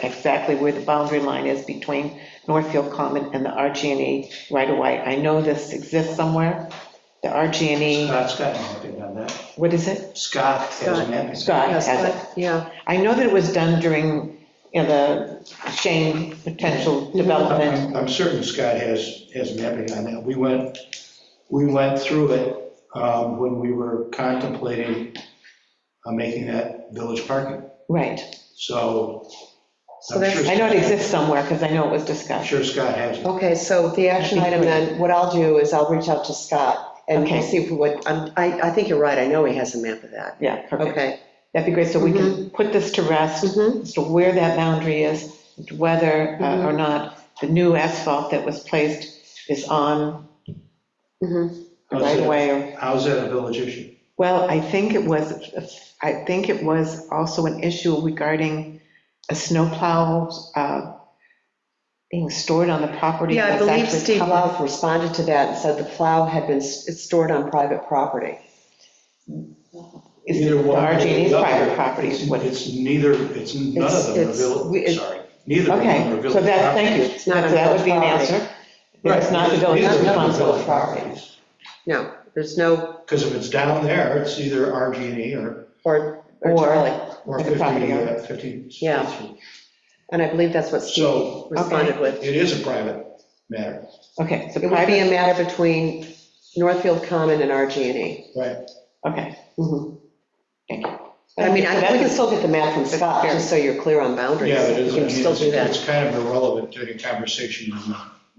exactly where the boundary line is between Northfield Common and E the RG&E right-of-way. I know this exists somewhere, the RG&E, Scott's got an opinion on that. E, what is it? Scott has an opinion. Scott Yeah, has it. Scott, Yeah, I know that it was done during, you know, the Shane potential development. I'm I'm certain Scott has, has mapping on that. We went, we went through it um, when we were contemplating uh, making that village parking. Right. So so I'm that's, sure, I know it exists somewhere because I know it was discussed. I'm sure Scott has. it. okay, so the action I think item we- then, what I'll do is I'll reach out to Scott and Okay. we'll see if what, I'm- I, I think you're right, I know he has a map of that. Yeah, perfect. Okay. That'd be great, so we can put this to rest Mhm. as to where that boundary is, whether uh, or not the new asphalt that was placed is on Mm-hmm. Mhm. the right How's that- away. or How's that a village issue? Well, I think it was, I think it was also an issue regarding a snowplow uh, being stored on the property. Yeah, I that's believe actually Steve public. Lauf responded to that and said the plow had been, s- it's stored on private property. Is Either the one or RG&E's the other. private property is It's- what. It's neither, it's none It's- of them are it's- we- village, it's- sorry. Neither of them are Okay, village. so that, thank you. not on So that would be an village property. answer. It's not the village's responsibility. No, there's no, Because if it's down there, it's either RG&E E or, or, or Or- Charlie, or Like a 50, property owner. uh, 50. Yeah. and I believe that's what Steve So responded with. it is a private matter, Okay, so It would be private, a matter between Northfield Common and E. RG&E. right? okay, Mhm. thank you. I mean, I- we can That's- still get the map from Scott, just so you're clear on boundaries. Yeah, it is, We I can still do mean, that. it's- it's kind of irrelevant to the conversation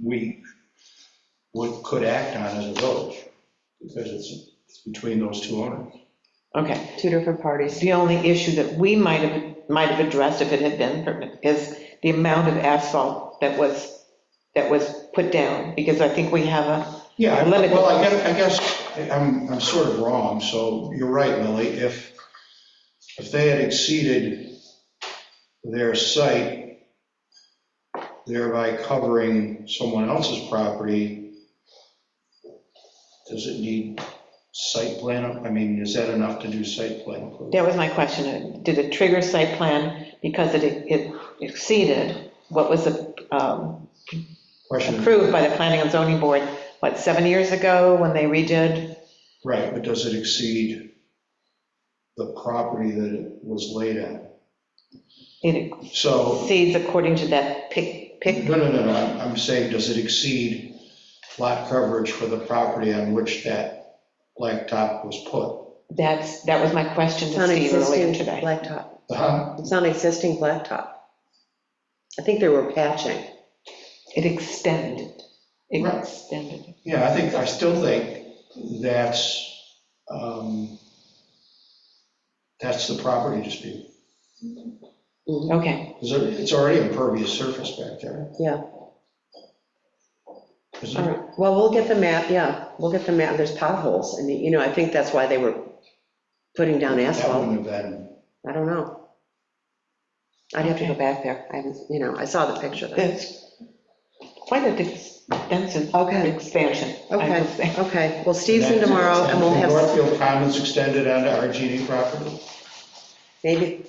we would, could act on as a village, because it's it's between those two owners. Okay. Two different parties. The only issue that we might have, might have addressed if it had been, permitted is the amount of asphalt that was, that was put down, because I think we have a, Yeah, I- Limited. well, I guess, I guess, I'm, I'm sort of wrong, so you're right, Lily, if, if they had exceeded their site, thereby covering someone else's property, does it need site plan, I mean, is that enough to do site plan? approval? that was my question, did it trigger site plan because it, it exceeded what was um, Question, approved by the planning and zoning board, what, seven years ago, when they redid? right, but does it exceed the property that it was laid on? It So exceeds according to that pick, pick, No, no, no, no, I'm, I'm saying, does it exceed lot coverage for the property on which that blacktop was put? that's, that was my question It's to on Steve earlier existing today. blacktop. Uh-huh. It's on existing blacktop. I think they were patching. It extended, it Right. extended. Yeah, I think, I still think that's, um, that's the property dispute. Okay, Mm-hmm. 'Cause it- It's already impervious surface back there. Yeah. Is All it? right, well, we'll get the map, yeah, we'll get the map, there's potholes, I mean, you know, I think that's why they were putting down That asphalt, wouldn't have been, I don't know. I'd have to go back there, I haven't, you know, I saw the picture though. that's quite an extensive Okay. expansion. I would Okay, say. okay, well, Steve's in tomorrow, and we'll have, Northfield Commons extended onto RG&E property? maybe,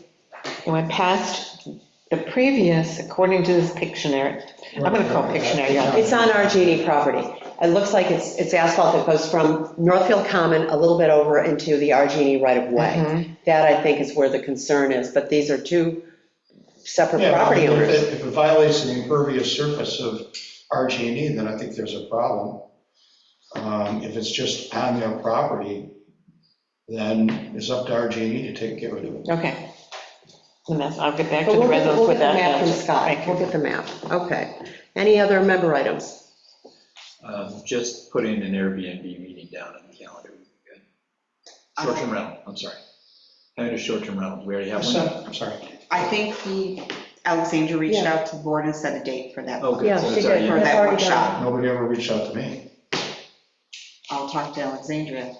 It went past the previous, according to this Pictionary, I'm gonna call Pictionary, yeah. it's on our Genie property. It looks like it's, it's asphalt that goes from Northfield Common a little bit over into the our Genie Mm-hmm. right-of-way. That, I think, is where the concern is, but these are two separate Yeah, but property if it- owners. If it violates the impervious surface of RG&E, E, then I think there's a problem. Um, If it's just on their property, then it's up to RG&E E to take, get rid of it. Okay. And that's, I'll get back to But the we'll get, residents we'll with get the that. map from answer. Scott, Thank you. we'll get the map, okay. Any other member items? Um, Just put in an Airbnb meeting down on the calendar. would be good. Short-term rental, I'm sorry. Having a short-term rental, we already have So- one. I'm sorry. I think he, Alexandra reached out to the board and set a date for that. Oh, good. so Yeah, she it's already did. For in. That's that already workshop. Nobody ever reached out to me. I'll talk to Alexandra.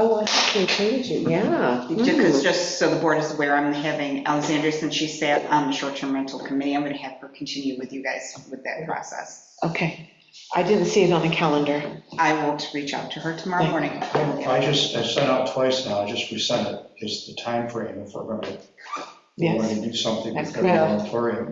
Oh, I see, change it, yeah. Because just so the board is aware, I'm having Alexandra, since she sat on the short-term rental committee, I'm going to have her continue with you guys with that process. Okay, I didn't see it on the calendar. I will reach out to her tomorrow morning. I just, I sent out twice now, I just resent it, is the timeframe if we're going to, Yes. want to do something with That's the correct. moratorium.